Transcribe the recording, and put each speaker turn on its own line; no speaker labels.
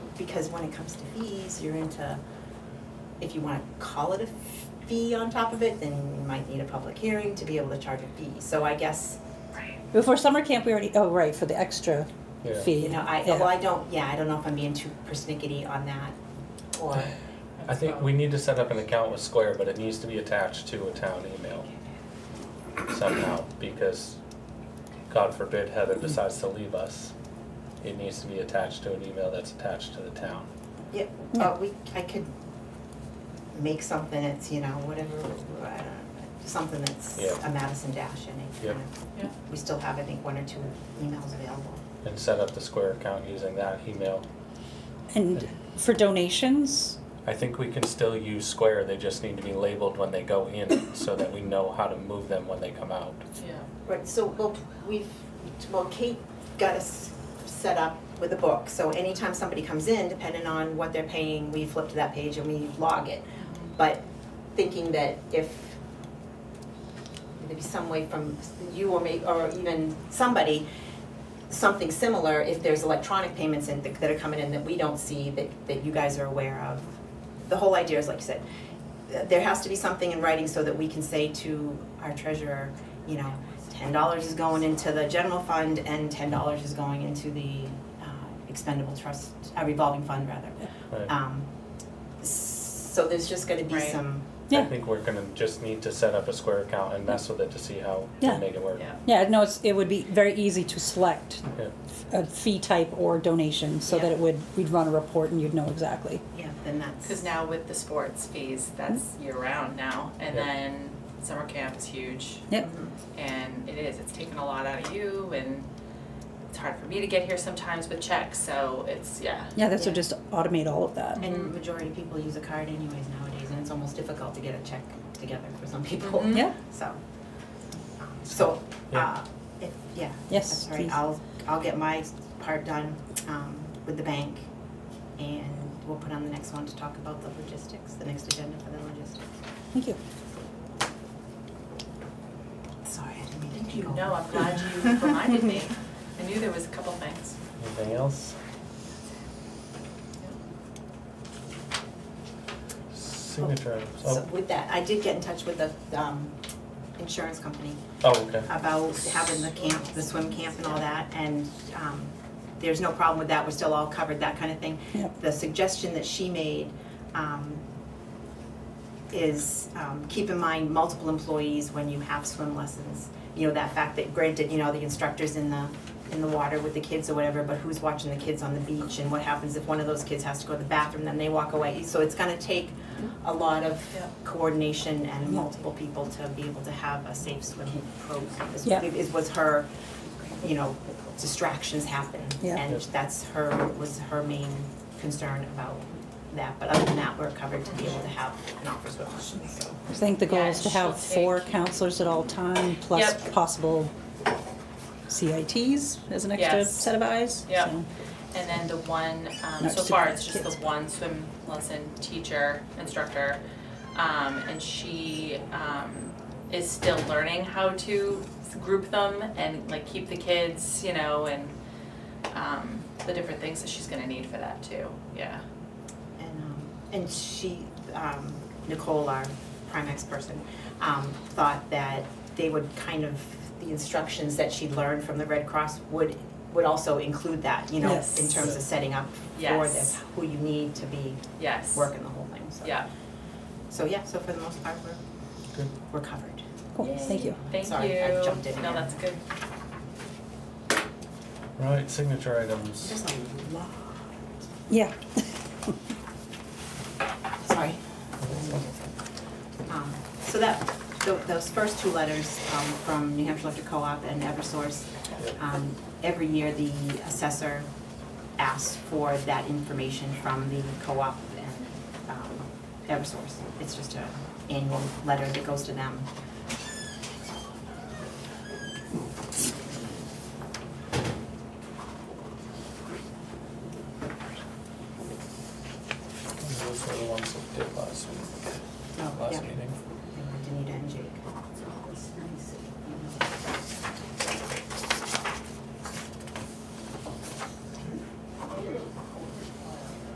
because when it comes to fees, you're into, if you wanna call it a fee on top of it, then you might need a public hearing to be able to charge a fee. So I guess,
Before summer camp, we already, oh, right, for the extra
Yeah.
fee.
you know, I,
Yeah.
well, I don't, yeah, I don't know if I'm being too persnickety on that or.
I think we need to set up an account with Square, but it needs to be attached to a town email somehow, because God forbid Heather decides to leave us. It needs to be attached to an email that's attached to the town.
Yeah, uh, we, I could make something that's, you know, whatever, I don't know, something that's
Yeah.
a Madison Dash in it. you
Yep.
know.
Yeah.
We still have, I think, one or two emails available.
And set up the Square account using that email.
And for donations,
I think we can still use Square, they just need to be labeled when they go in, so that we know how to move them when they come out.
Yeah.
Right, so, well, we've, well, Kate got us set up with a book, so anytime somebody comes in, depending on what they're paying, we flip to that page and we log it. But thinking that if maybe some way from you or me, or even somebody, something similar, if there's electronic payments in, that are coming in that we don't see, that, that you guys are aware of. The whole idea is, like you said, th- there has to be something in writing so that we can say to our treasurer, you know, ten dollars is going into the general fund and ten dollars is going into the uh, expendable trust, uh, revolving fund rather.
Right.
Um, s- so there's just gonna be
Right.
some,
I
Yeah.
think we're gonna just need to set up a Square account and mess with it to see how
Yeah.
to make it work.
Yeah.
yeah, no, it's, it would be very easy to select
Yeah.
a fee type or donation so that it would, we'd run a report and you'd know exactly.
yeah, then that's.
Because now with the sports fees, that's year round now, and
Yeah.
then summer camp is huge,
Yep.
and it is, it's taken a lot out of you, and it's hard for me to get here sometimes with checks, so it's, yeah.
Yeah, this would
Yeah.
just automate all of that.
And majority of people use a card anyways nowadays, and it's almost difficult to get a check together for some people,
Mhm.
Yeah,
so. um, So, uh,
Yeah.
if, yeah.
Yes,
That's right,
please.
I'll, I'll get my part done, um, with the bank, and we'll put on the next one to talk about the logistics, the next agenda for the logistics.
thank you.
Sorry, I didn't mean to
Thank you,
take over.
no, I'm glad you reminded me, I knew there was a couple things.
Anything else? Signature items.
So
Oh,
with that, I did get in touch with the, um, insurance company,
oh, okay.
about having the camp, the swim camp and all that, and um, there's no problem with that, we're still all covered, that kind of thing.
Yep.
The suggestion that she made um, is um, keep in mind multiple employees when you have swim lessons. You know, that fact that granted, you know, the instructor's in the, in the water with the kids or whatever, but who's watching the kids on the beach? And what happens if one of those kids has to go to the bathroom, then they walk away? So it's gonna take a lot of
Yeah.
coordination and multiple people to be able to have a safe swim program. is-
Yeah.
Is was her, you know, distractions happen.
Yeah.
And that's her, was her main concern about that. But other than that, we're covered to be able to have an office with questions, so.
I think the goal
Yeah,
is to
and she'll
have four
take-
counselors at all time, plus
Yep.
possible CITs as an extra
Yes.
set of eyes.
Yep.
so.
And then the one, um,
No,
so
just
far,
a-
it's just the
kids.
one swim lesson teacher, instructor. Um, and she, um, is still learning how to group them and like keep the kids, you know, and, um, the different things that she's gonna need for that too, yeah.
And, um, and she, um, Nicole, our Primex person, um, thought that they would kind of, the instructions that she learned from the Red Cross would, would also include that, you know,
Yes.
in terms of setting up for
Yes.
this, who you need to be
Yes.
working the whole thing, so.
Yeah.
So, yeah, so for the most part, we're,
Good.
we're covered.
Cool, thank you.
Thank you.
Sorry, I jumped in
No,
again.
that's good.
Right, signature items.
There's a lot,
Yeah,
sorry. Um, So that, tho- those first two letters um, from New Hampshire Electric Co-op and Eversource, um, every year the assessor asks for that information from the co-op and um, Eversource. It's just an annual letter that goes to them.
Those were the ones that did last week,
Oh, yeah.
last meeting.
Danita and Jake.